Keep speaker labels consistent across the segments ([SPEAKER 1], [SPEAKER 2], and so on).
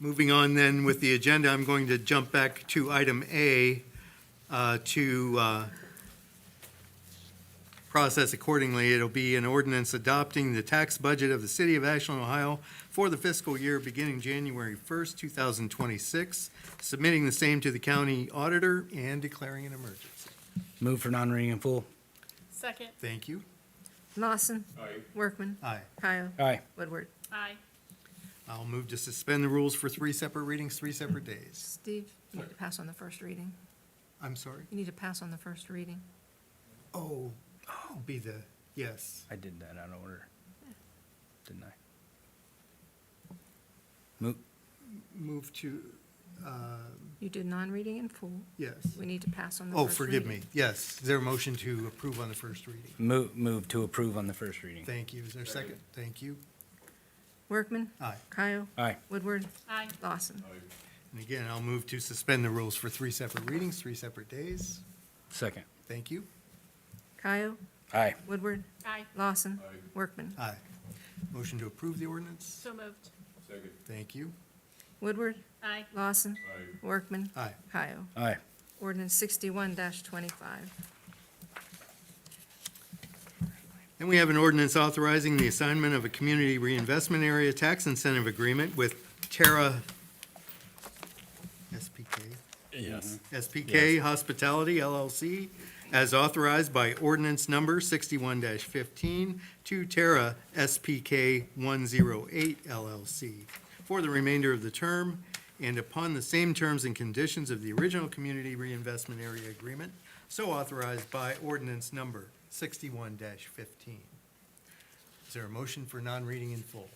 [SPEAKER 1] Moving on then with the agenda, I'm going to jump back to item A uh, to uh, process accordingly. It'll be an ordinance adopting the tax budget of the city of Ashland, Ohio for the fiscal year beginning January 1st, 2026, submitting the same to the county auditor and declaring an emergency.
[SPEAKER 2] Move for non-reading in full.
[SPEAKER 3] Second.
[SPEAKER 1] Thank you.
[SPEAKER 4] Lawson. Workman.
[SPEAKER 1] Aye.
[SPEAKER 4] Kyle.
[SPEAKER 2] Aye.
[SPEAKER 4] Woodward.
[SPEAKER 3] Aye.
[SPEAKER 1] I'll move to suspend the rules for three separate readings, three separate days.
[SPEAKER 4] Steve, you need to pass on the first reading.
[SPEAKER 1] I'm sorry?
[SPEAKER 4] You need to pass on the first reading.
[SPEAKER 1] Oh, I'll be the, yes.
[SPEAKER 2] I did that out of order, didn't I? Move,
[SPEAKER 1] Move to, uh,
[SPEAKER 4] You did non-reading in full.
[SPEAKER 1] yes.
[SPEAKER 4] We need to pass on the
[SPEAKER 1] Oh,
[SPEAKER 4] first reading.
[SPEAKER 1] forgive me. Yes. Is there a motion to approve on the first reading?
[SPEAKER 2] move, move to approve on the first reading.
[SPEAKER 1] Thank you. Is there a second? Thank you.
[SPEAKER 4] Workman.
[SPEAKER 1] Aye.
[SPEAKER 4] Kyle.
[SPEAKER 2] Aye.
[SPEAKER 4] Woodward.
[SPEAKER 3] Aye.
[SPEAKER 4] Lawson.
[SPEAKER 1] And again, I'll move to suspend the rules for three separate readings, three separate days.
[SPEAKER 2] Second.
[SPEAKER 1] Thank you.
[SPEAKER 4] Kyle.
[SPEAKER 2] Aye.
[SPEAKER 4] Woodward.
[SPEAKER 3] Aye.
[SPEAKER 4] Lawson. Workman.
[SPEAKER 1] Aye. Motion to approve the ordinance?
[SPEAKER 3] So moved.
[SPEAKER 1] Thank you.
[SPEAKER 4] Woodward.
[SPEAKER 3] Aye.
[SPEAKER 4] Lawson. Workman.
[SPEAKER 1] Aye.
[SPEAKER 4] Kyle.
[SPEAKER 2] Aye.
[SPEAKER 4] Ordinance sixty-one twenty-five.
[SPEAKER 1] And we have an ordinance authorizing the assignment of a community reinvestment area tax incentive agreement with Terra SPK.
[SPEAKER 2] Yes.
[SPEAKER 1] SPK Hospitality LLC, as authorized by ordinance number 61-15 to Terra SPK 108 LLC for the remainder of the term and upon the same terms and conditions of the original Community Reinvestment Area Agreement, so authorized by ordinance number 61-15. Is there a motion for non-reading in full?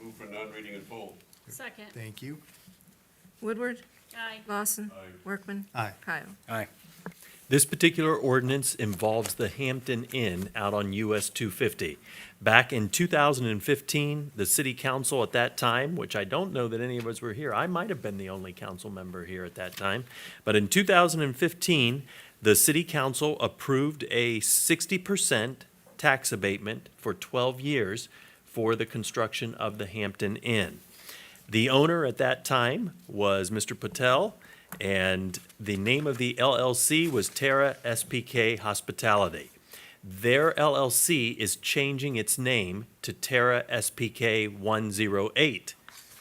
[SPEAKER 5] Move for non-reading in full.
[SPEAKER 3] Second.
[SPEAKER 1] Thank you.
[SPEAKER 4] Woodward.
[SPEAKER 3] Aye.
[SPEAKER 4] Lawson.
[SPEAKER 5] Aye.
[SPEAKER 4] Workman.
[SPEAKER 1] Aye.
[SPEAKER 4] Kyle.
[SPEAKER 2] Aye.
[SPEAKER 6] This particular ordinance involves the Hampton Inn out on US 250. Back in 2015, the city council at that time, which I don't know that any of us were here, I might have been the only council member here at that time, but in 2015, the city council approved a 60% tax abatement for 12 years for the construction of the Hampton Inn. The owner at that time was Mr. Patel, and the name of the LLC was Terra SPK Hospitality. Their LLC is changing its name to Terra SPK 108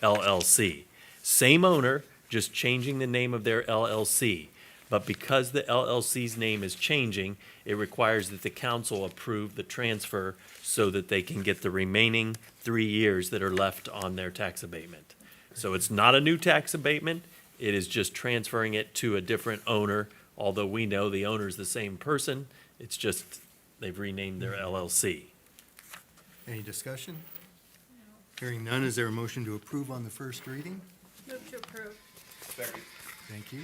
[SPEAKER 6] LLC. Same owner, just changing the name of their LLC. But because the LLC's name is changing, it requires that the council approve the transfer so that they can get the remaining three years that are left on their tax abatement. So it's not a new tax abatement, it is just transferring it to a different owner, although we know the owner's the same person, it's just they've renamed their LLC.
[SPEAKER 1] Any discussion? Hearing none, is there a motion to approve on the first reading?
[SPEAKER 3] Move to approve.
[SPEAKER 5] Second.
[SPEAKER 1] Thank you.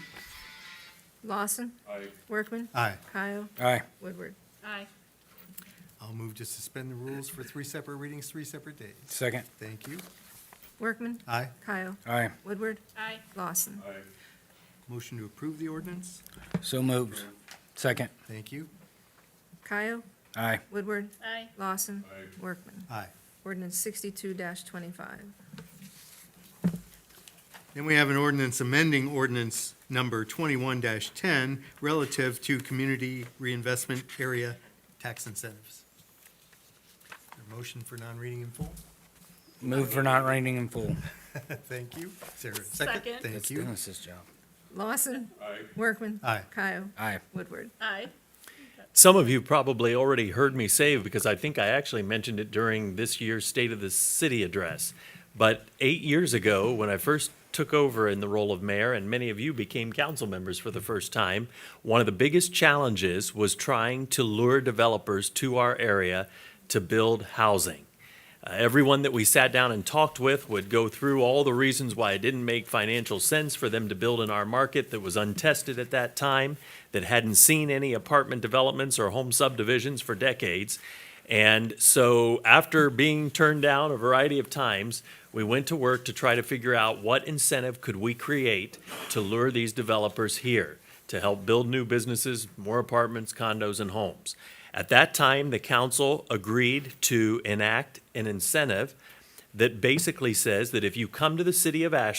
[SPEAKER 4] Lawson.
[SPEAKER 5] Aye.
[SPEAKER 4] Workman.
[SPEAKER 1] Aye.
[SPEAKER 4] Kyle.
[SPEAKER 2] Aye.
[SPEAKER 4] Woodward.
[SPEAKER 3] Aye.
[SPEAKER 1] I'll move to suspend the rules for three separate readings, three separate days.
[SPEAKER 2] Second.
[SPEAKER 1] Thank you.
[SPEAKER 4] Workman.
[SPEAKER 1] Aye.
[SPEAKER 4] Kyle.
[SPEAKER 2] Aye.
[SPEAKER 4] Woodward.
[SPEAKER 3] Aye.
[SPEAKER 4] Lawson.
[SPEAKER 5] Aye.
[SPEAKER 1] Motion to approve the ordinance?
[SPEAKER 2] So moved. Second.
[SPEAKER 1] Thank you.
[SPEAKER 4] Kyle.
[SPEAKER 2] Aye.
[SPEAKER 4] Woodward.
[SPEAKER 3] Aye.
[SPEAKER 4] Lawson.
[SPEAKER 5] Aye.
[SPEAKER 4] Workman.
[SPEAKER 1] Aye.
[SPEAKER 4] Ordinance sixty-two twenty-five.
[SPEAKER 1] Then we have an ordinance amending ordinance number twenty-one ten relative to community reinvestment area tax incentives. Is there a Motion for non-reading in full?
[SPEAKER 2] Move for non-reading in full.
[SPEAKER 1] Thank you. Is there a second?
[SPEAKER 3] Second.
[SPEAKER 1] Thank
[SPEAKER 2] That's
[SPEAKER 1] you.
[SPEAKER 2] Dennis's job.
[SPEAKER 4] Lawson.
[SPEAKER 5] Aye.
[SPEAKER 4] Workman.
[SPEAKER 1] Aye.
[SPEAKER 4] Kyle.
[SPEAKER 2] Aye.
[SPEAKER 4] Woodward.
[SPEAKER 3] Aye.
[SPEAKER 6] Some of you probably already heard me say, because I think I actually mentioned it during this year's State of the City address. But eight years ago, when I first took over in the role of mayor, and many of you became council members for the first time, one of the biggest challenges was trying to lure developers to our area to build housing. Uh, everyone that we sat down and talked with would go through all the reasons why it didn't make financial sense for them to build in our market that was untested at that time, that hadn't seen any apartment developments or home subdivisions for decades. And so, after being turned down a variety of times, we went to work to try to figure out what incentive could we create to lure these developers here to help build new businesses, more apartments, condos, and homes. At that time, the council agreed to enact an incentive that basically says that if you come to the city of Ashland.